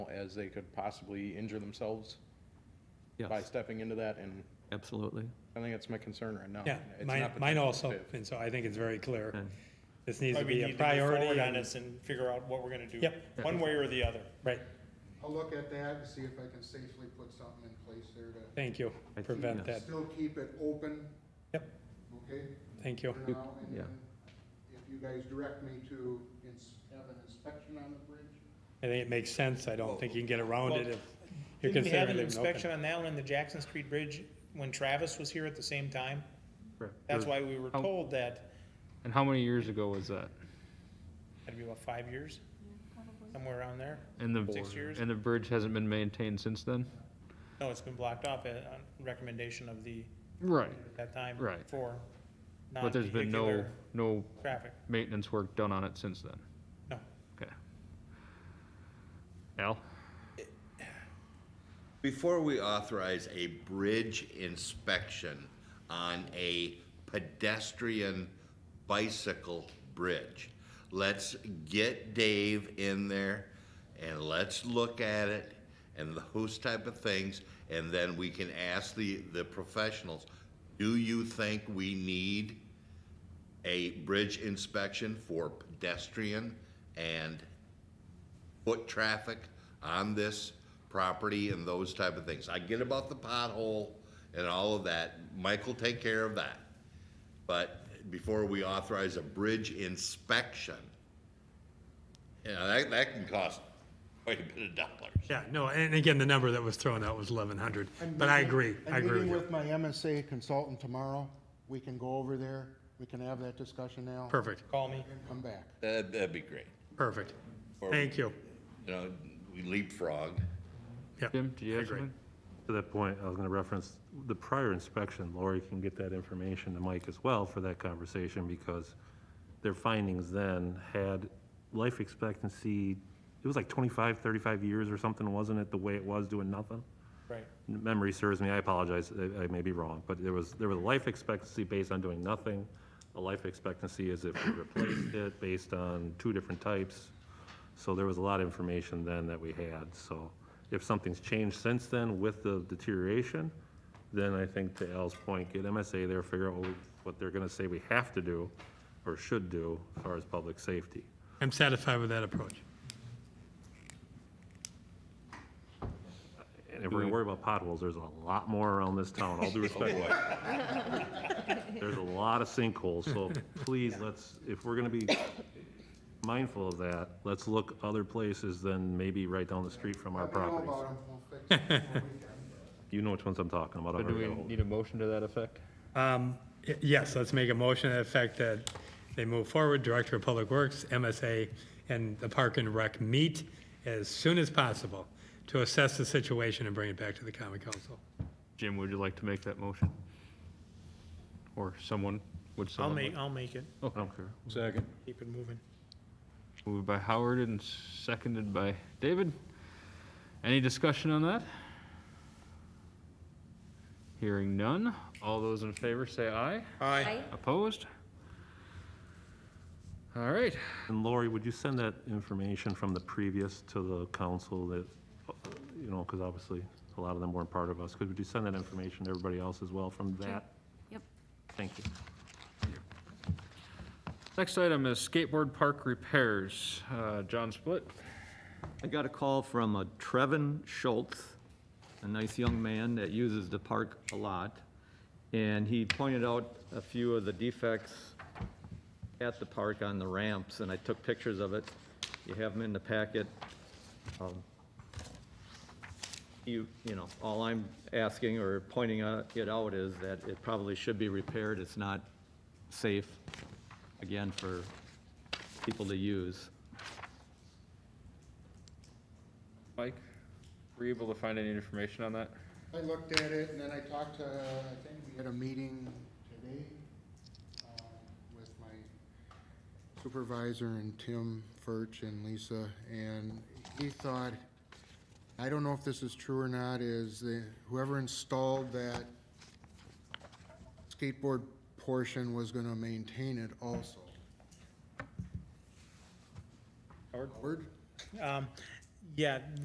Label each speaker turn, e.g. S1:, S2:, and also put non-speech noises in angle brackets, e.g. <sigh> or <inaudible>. S1: as they could possibly injure themselves by
S2: Yes,
S1: stepping into that, and
S2: absolutely.
S1: I think that's my concern right now.
S3: Yeah,
S1: It's
S3: mine,
S1: not
S3: mine
S1: potentially
S3: also,
S1: safe.
S3: and so I think it's very clear.
S2: Okay.
S3: This needs to
S4: Probably
S3: be
S4: need
S3: a
S4: move
S3: priority.
S4: forward on
S3: and-
S4: this and figure out what we're gonna do.
S3: Yep.
S4: One way or the other.
S3: Right,
S5: I'll look at that and see if I can safely put something in place there to
S3: thank you.
S2: I see,
S3: Prevent
S2: yes.
S3: that.
S5: still keep it open.
S3: Yep.
S5: Okay,
S3: Thank you.
S5: for now, and
S2: yeah.
S5: then if you guys direct me to ins- have an inspection on the bridge,
S3: I think it makes sense. I don't think you can get around it if you're
S4: Didn't we have
S3: considering
S4: an
S3: leaving it
S4: inspection
S3: open.
S4: on that one in the Jackson Street Bridge when Travis was here at the same time?
S2: Correct.
S4: That's why we were
S3: Oh.
S6: How-
S4: told that,
S6: And how many years ago was that?
S4: that'd be about five years, somewhere around there.
S6: And the
S4: Six years.
S6: and the bridge hasn't been maintained since then.
S4: No, it's been blocked off at, on recommendation of the,
S6: Right.
S4: at that time.
S6: Right.
S4: For
S6: But there's been no
S4: non-vehicular
S6: no
S4: traffic.
S6: maintenance work done on it since then.
S4: No.
S6: Okay. Al,
S7: Before we authorize a bridge inspection on a pedestrian bicycle bridge, let's get Dave in there and let's look at it and those type of things, and then we can ask the, the professionals, do you think we need a bridge inspection for pedestrian and foot traffic on this property and those type of things. I get about the pothole and all of that. Mike will take care of that. But before we authorize a bridge inspection, you know, that, that can cost quite a bit of dollars.
S3: Yeah, no, and again, the number that was thrown out was eleven hundred, but I agree, I agree with
S5: I'm meeting
S3: you.
S5: with my MSA consultant tomorrow. We can go over there, we can have that discussion now.
S3: Perfect,
S4: Call me.
S5: And come back.
S7: That'd, that'd be great.
S3: perfect.
S7: Or-
S3: Thank you.
S7: You know, we leapfrog.
S3: Yep.
S6: Jim, do you have
S3: agree.
S6: something?
S2: To that point, I was going to reference the prior inspection. Lori can get that information to Mike as well for that conversation because their findings then had life expectancy, it was like 25, 35 years or something, wasn't it, the way it was doing nothing?
S4: Right.
S2: memory serves me, I apologize, I, I may be wrong, but there was, there was a life expectancy based on doing nothing. A life expectancy is if we replaced it based on two different types. So there was a lot of information then that we had, so if something's changed since then with the deterioration, then I think to Al's point, get MSA there, figure out what they're gonna say we have to do or should do as far as public safety.
S3: I'm satisfied with that approach.
S2: And if we're gonna worry about potholes, there's a lot more around this town, all due respect. There's a lot of sinkholes,
S6: <laughs>
S2: so please, let's, if we're gonna be mindful of that, let's look other places than maybe right down the street from our
S5: Let me know
S2: properties.
S5: about 'em. We'll fix it before we
S3: <laughs>
S5: can.
S2: You know which ones I'm talking about. I've
S6: do we
S2: already got a hold-
S6: need a motion to that effect?
S3: Um, y- yes, let's make a motion to the effect that they move forward, Director of Public Works, MSA, and the Park and Rec meet as soon as possible to assess the situation and bring it back to the common council.
S6: Jim, would you like to make that motion? Or someone, would
S4: I'll
S6: someone?
S4: make,
S6: like-
S4: I'll make it.
S2: I don't care.
S1: Second.
S4: Keep it moving.
S6: Moved by Howard and seconded by David. Any discussion on that? Hearing none. All those in favor say aye.
S4: Aye.
S6: Opposed? All right.
S2: And Lori, would you send that information from the previous to the council that, you know, because obviously a lot of them weren't part of us. Could, would you send that information to everybody else as well from that?
S8: Yep.
S2: Thank you.
S6: Next item is skateboard park repairs. Uh, John Split.
S9: I got a call from a Trevin Schultz, a nice young man that uses the park a lot, and he pointed out a few of the defects at the park on the ramps, and I took pictures of it. You have them in the packet. Um, You, you know, all I'm asking or pointing out- it out is that it probably should be repaired. It's not safe, again, for people to use.
S6: Mike, were you able to find any information on that?
S5: I looked at it, and then I talked to, I think we had a meeting today uh, with my supervisor and Tim Furch and Lisa, and he thought, I don't know if this is true or not, is that whoever installed that skateboard portion was gonna maintain it also. Howard?
S4: Um, yeah,